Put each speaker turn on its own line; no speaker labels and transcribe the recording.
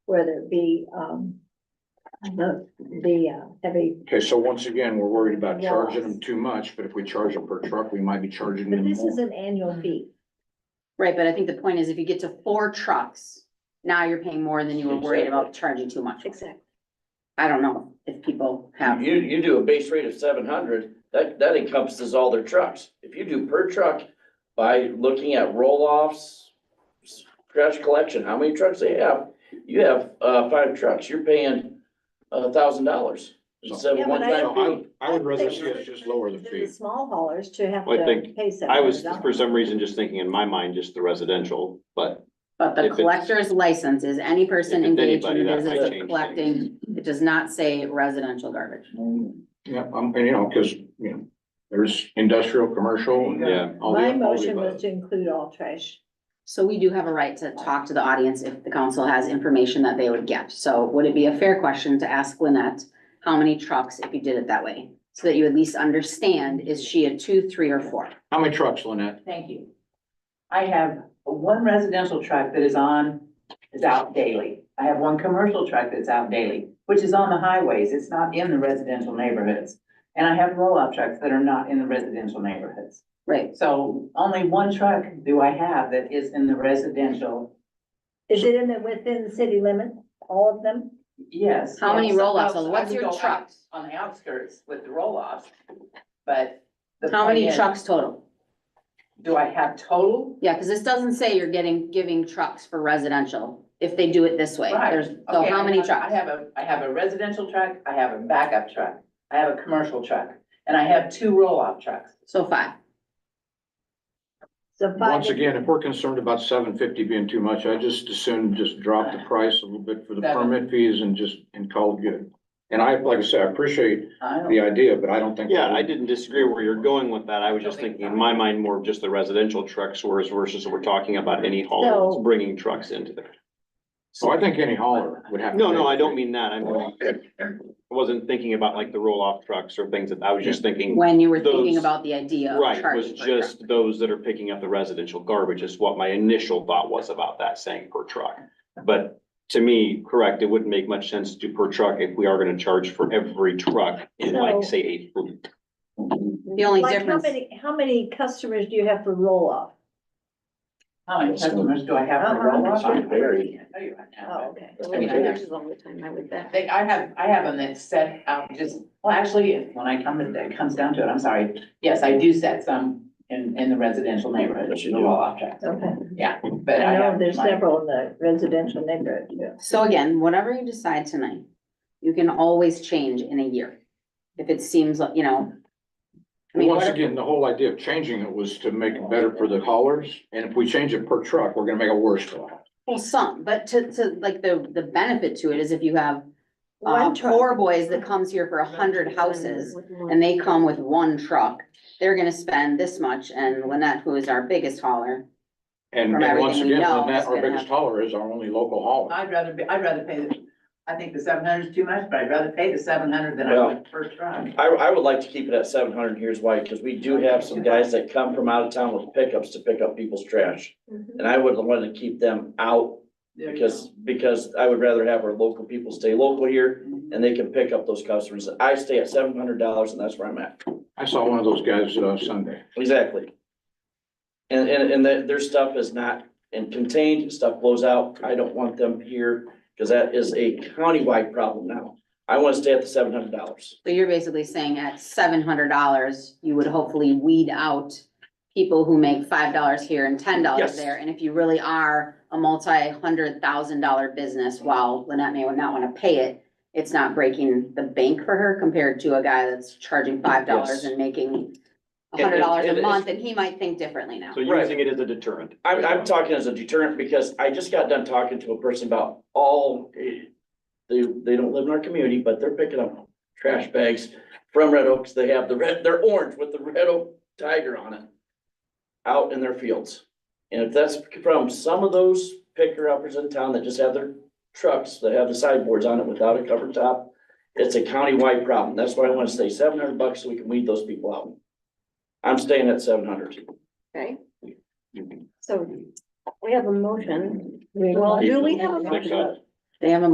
whether it be, um, the, the uh, heavy,
Okay, so once again, we're worried about
Yeah.
charging them too much, but if we charge them per truck, we might be charging
but
them
this is
more.
an annual fee.
Right, but I think the point is if you get to four trucks, now you're paying more than you were worried about charging too much.
Exactly.
I don't know if people have,
You, you do a base rate of seven hundred, that, that encompasses all their trucks. If you do per truck by looking at roll-offs, trash collection, how many trucks they have, you have, uh, five trucks, you're paying a thousand dollars. Instead
Yeah,
of
but
one
I
So
time
I, would- I would rather
think
see us just lower the
the
fee.
Small haulers to have
Well,
to
I think-
pay seven
I was,
hundred
for
dollars.
some reason, just thinking in my mind, just the residential, but
but the
If it's-
collector's license is any person
If it's
engaged in
anybody,
the
that might
business of
change
collecting. It does not say residential garbage.
Yeah, um, and you know, cause, you know, there's industrial, commercial, and
yeah.
all the.
My
all the
motion was
above.
to include all trash.
So we do have a right to talk to the audience if the council has information that they would get. So would it be a fair question to ask Lynette how many trucks if you did it that way? So that you at least understand, is she a two, three, or four?
How many trucks, Lynette?
Thank you. I have one residential truck that is on, is out daily. I have one commercial truck that's out daily, which is on the highways. It's not in the residential neighborhoods. And I have roll-off trucks that are not in the residential neighborhoods.
Right,
So only one truck do I have that is in the residential,
Is it in the, within the city limit, all of them?
yes.
How many
yes.
roll-offs?
Outs- I
What's
would
your
go out
trucks?
On the outskirts with the roll-offs, but. the
how many
point is,
trucks total?
Do I have total?
Yeah, because this doesn't say you're getting, giving trucks for residential if they do it this way.
Right.
There's, so
Okay,
how
I
many
have- I
trucks?
have a, I have a residential truck, I have a backup truck, I have a commercial truck, and I have two roll-off trucks.
So five.
So five.
Once again, if we're concerned about seven fifty being too much, I just assume just drop the price a little bit for the
Seven.
permit fees and just, and call it good. And I, like I said, I appreciate
I don't-
the idea, but I don't think.
Yeah, I didn't disagree where you're going with that. I was just thinking in my mind more of just the residential trucks, whereas versus we're talking about any hauler
So-
that's bringing trucks into there.
So Oh, I think any hauler would have. to
No,
pay
no, I
the
don't
fee.
mean that. I mean, I wasn't thinking about like the roll-off trucks or things that, I was just thinking,
When you were thinking
Those-
about the idea of
right, was
charging for a truck.
just those that are picking up the residential garbage is what my initial thought was about that saying per truck. But to me, correct, it wouldn't make much sense to do per truck if we are gonna charge for every truck in like,
So-
say, eight fleet.
The only
Like how
difference,
many, how many customers do you have for roll off?
How many customers do I have for
Uh-huh.
roll-off?
It's varied.
I tell you right now,
Oh,
but-
okay.
I mean, I have-
all the time, I would bet.
They, I have, I have them that set out just, well, actually, when I come, to- that comes down to it, I'm sorry. Yes, I do set some in, in the residential neighborhood, the roll-off trucks,
Okay.
but I
I know
have.
there's
my-
several in the residential neighborhood, yeah.
So again, whatever you decide tonight, you can always change in a year. If it seems like, you know. I mean,
Once
what if-
again, the whole idea of changing it was to make it better for the haulers, and if we change it per truck, we're gonna make it worse for them.
well, some, but to, to, like, the, the benefit to it is if you have uh,
One truck.
poor boys that comes here for a hundred houses and they come with one truck, they're gonna spend this much and Lynette, who is our biggest hauler,
And,
From
and once
everything we
again,
know,
Lynette,
it's
our
gonna
biggest hauler is our only local hauler.
I'd rather be, I'd rather pay, the- I think the seven hundred is too much, but I'd rather pay the seven hundred than I would per truck.
I, I would like to keep it at seven hundred, here's why, because we do have some guys that come from out of town with pickups to pick up people's trash.
Mm-hmm.
And I would want to keep them out
There you
because, because I would rather have our local people stay local here
go. Mhm.
and they can pick up those customers. I stay at seven hundred dollars and that's where I'm at.
I saw one of those guys, uh, Sunday.
Exactly. And, and, and their, their stuff is not in contained, stuff blows out. I don't want them here because that is a countywide problem now. I want to stay at the seven hundred dollars.
So you're basically saying at seven hundred dollars, you would hopefully weed out people who make five dollars here and ten dollars
Yes.
there. And if you really are a multi-hundred thousand dollar business, while Lynette may not wanna pay it, it's not breaking the bank for her compared to a guy that's charging five dollars
Yes.
and making
And-
hundred dollars
and
a
it's-
month, and he might think differently now.
So
Right.
using it as a deterrent.
I'm, I'm talking as a deterrent because I just got done talking to a person about all, eh, they, they don't live in our community, but they're picking up trash bags from Red Oaks. They have the red, they're orange with the red oak tiger on it out in their fields. And if that's from some of those picker uppers in town that just have their trucks, that have the sideboards on it without a cover top, it's a countywide problem. That's why I want to stay seven hundred bucks so we can weed those people out. I'm staying at seven hundred.
Okay, so we have a motion.
We
Well,
want-
do we have a
Think
motion?
so.
They have a